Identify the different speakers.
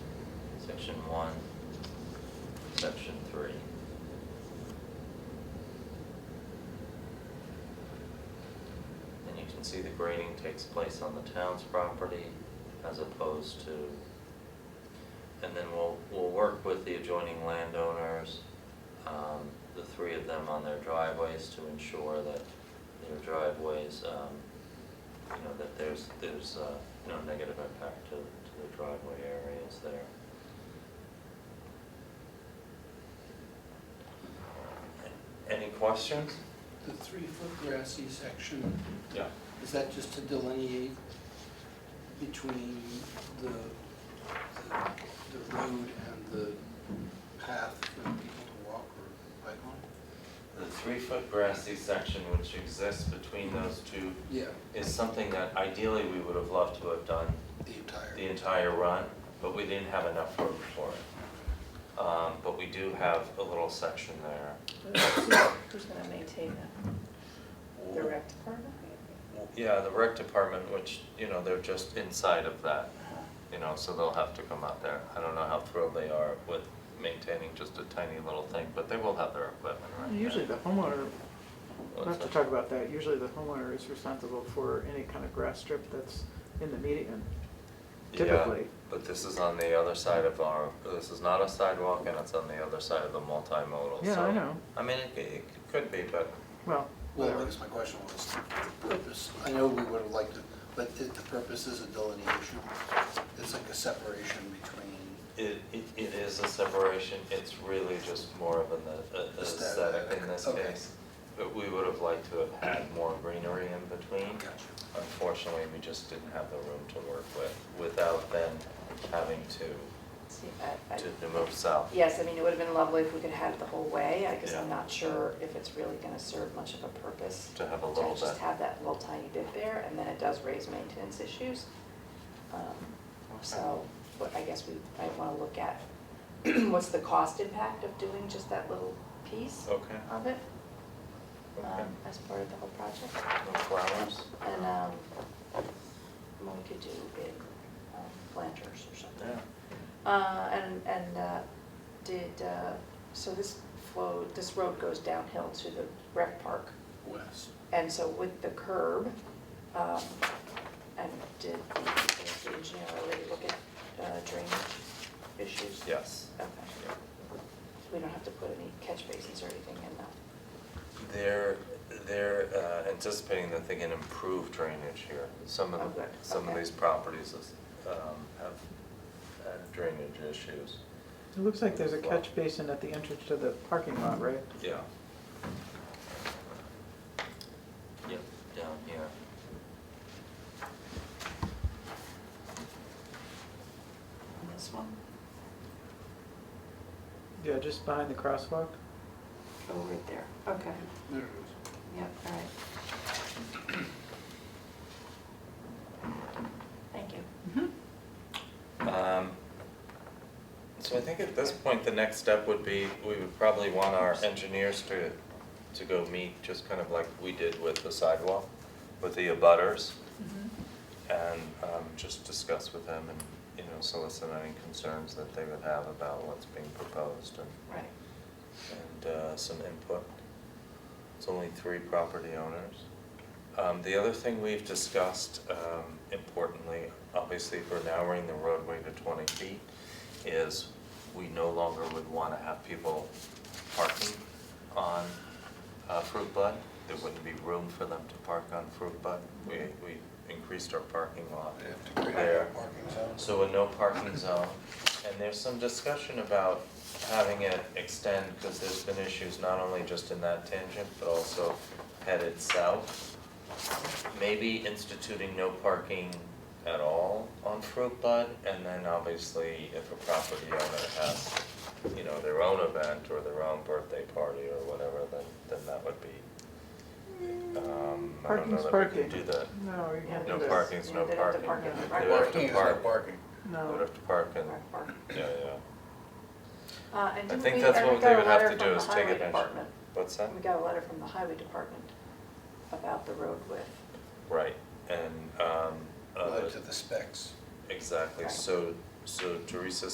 Speaker 1: section one, section three. And you can see the grading takes place on the town's property as opposed to, and then we'll, we'll work with the adjoining landowners, um, the three of them on their driveways to ensure that their driveways, um, you know, that there's, there's, uh, no negative impact to, to the driveway areas there. Any questions?
Speaker 2: The three-foot grassy section,
Speaker 3: Yeah.
Speaker 2: is that just to delineate between the, the- the road and the path for people to walk or bike on?
Speaker 1: The three-foot grassy section which exists between those two
Speaker 2: Yeah,
Speaker 1: is something that ideally we would have loved to have done
Speaker 2: the
Speaker 1: the
Speaker 2: entire,
Speaker 1: entire run, but we didn't have enough room for it. Um, but we do have a little section there.
Speaker 4: Who's gonna maintain that? The rec department?
Speaker 1: Yeah, the rec department, which, you know, they're just inside of that, you know, so they'll have to come out there. I don't know how thrilled they are with maintaining just a tiny little thing, but they will have their equipment right there.
Speaker 5: Usually the homeowner, we'll
Speaker 1: What's
Speaker 5: have to
Speaker 1: that?
Speaker 5: talk about that, usually the homeowner is responsible for any kind of grass strip that's in the median.
Speaker 1: Yeah,
Speaker 5: Typically.
Speaker 1: but this is on the other side of our, this is not a sidewalk and it's on the other side of the multimodal, so.
Speaker 5: Yeah, I know.
Speaker 1: I mean, it, it could be, but
Speaker 5: Well,
Speaker 2: well, I
Speaker 5: whatever.
Speaker 2: guess my question was, the purpose, I know we would have liked to, but it- the purpose is a delineation. It's like a separation between,
Speaker 1: it, it, it is a separation, it's really just more of an a- a-
Speaker 2: Aesthetic,
Speaker 1: aesthetic in this case.
Speaker 2: okay.
Speaker 1: But we would have liked to have had more greenery in between.
Speaker 2: Gotcha.
Speaker 1: Unfortunately, we just didn't have the room to work with without then having to,
Speaker 4: See, I- I-
Speaker 1: to move south.
Speaker 4: Yes, I mean, it would've been lovely if we could have it the whole way, I guess I'm
Speaker 1: Yeah.
Speaker 4: not sure if it's really gonna serve much of a purpose.
Speaker 1: To have a little
Speaker 4: just
Speaker 1: bit.
Speaker 4: have that little tiny bit there, and then it does raise maintenance issues. Um, So, what I guess we might wanna look at, what's the cost impact of doing just that little piece
Speaker 1: Okay.
Speaker 4: of it? um,
Speaker 1: Okay.
Speaker 4: As part of the whole project.
Speaker 1: No flowers?
Speaker 4: And, um, well, we could do big um, planters or something.
Speaker 1: Yeah.
Speaker 4: Uh, and, and, uh, did, uh, so this flow, this road goes downhill to the rec park.
Speaker 2: west.
Speaker 4: And so with the curb, um, and did the, did the engineer already look at uh, drainage issues?
Speaker 1: Yes.
Speaker 4: Okay.
Speaker 1: Yeah.
Speaker 4: We don't have to put any catch basins or anything in that.
Speaker 1: They're, they're uh, anticipating that they can improve drainage here. Some
Speaker 4: Oh,
Speaker 1: of, the
Speaker 4: good.
Speaker 1: some of
Speaker 4: Okay.
Speaker 1: these properties is, um, have had drainage issues.
Speaker 5: It looks like there's a catch basin at the entrance to the parking lot, right?
Speaker 1: Yeah. Yep, down here.
Speaker 4: This one?
Speaker 5: Yeah, just behind the crosswalk.
Speaker 4: Oh, right there. Okay.
Speaker 2: There it is.
Speaker 4: Yep, all right. Thank you.
Speaker 1: Um, So I think at this point, the next step would be, we would probably want our engineers to, to go meet, just kind of like we did with the sidewalk, with the abutters.
Speaker 5: Mm-hmm.
Speaker 1: And um, just discuss with them and, you know, solicit any concerns that they would have about what's being proposed and,
Speaker 4: Right.
Speaker 1: and uh, some input. It's only three property owners. Um, The other thing we've discussed, um, importantly, obviously for narrowing the roadway to twenty feet, is we no longer would want to have people parking on uh, Fruit Bud. There wouldn't be room for them to park on Fruit Bud. We, we increased our parking lot
Speaker 2: They have to create
Speaker 1: Uh, there.
Speaker 2: a parking zone.
Speaker 1: So uh, a no parking zone, and there's some discussion about having it extend, because there's been issues not only just in that tangent, but also headed south. Maybe instituting no parking at all on Fruit Bud, and then obviously if a property owner has, you know, their own event or their own birthday party or whatever, then, then that would be, um, I don't know
Speaker 5: Parking's
Speaker 1: that we can
Speaker 5: parking.
Speaker 1: do that.
Speaker 5: No, you can't do
Speaker 1: No
Speaker 5: that.
Speaker 1: parking. parking's no
Speaker 4: They'd have to park
Speaker 5: parking.
Speaker 4: in the
Speaker 1: They'd
Speaker 4: right
Speaker 1: have to park. They'd
Speaker 5: No.
Speaker 1: have to park and,
Speaker 4: Right park.
Speaker 1: yeah, yeah.
Speaker 4: Uh, and
Speaker 1: I
Speaker 4: didn't
Speaker 1: think
Speaker 4: we-
Speaker 1: that's
Speaker 4: and we
Speaker 1: what
Speaker 4: got
Speaker 1: they
Speaker 4: a
Speaker 1: would have
Speaker 4: letter
Speaker 1: to do
Speaker 4: from the
Speaker 1: is take
Speaker 4: highway
Speaker 1: advantage.
Speaker 4: department.
Speaker 1: What's that?
Speaker 4: We got a letter from the highway department about the road width.
Speaker 1: Right, and, um, uh,
Speaker 2: Relative to the specs.
Speaker 1: exactly,
Speaker 4: Right.
Speaker 1: so, so Teresa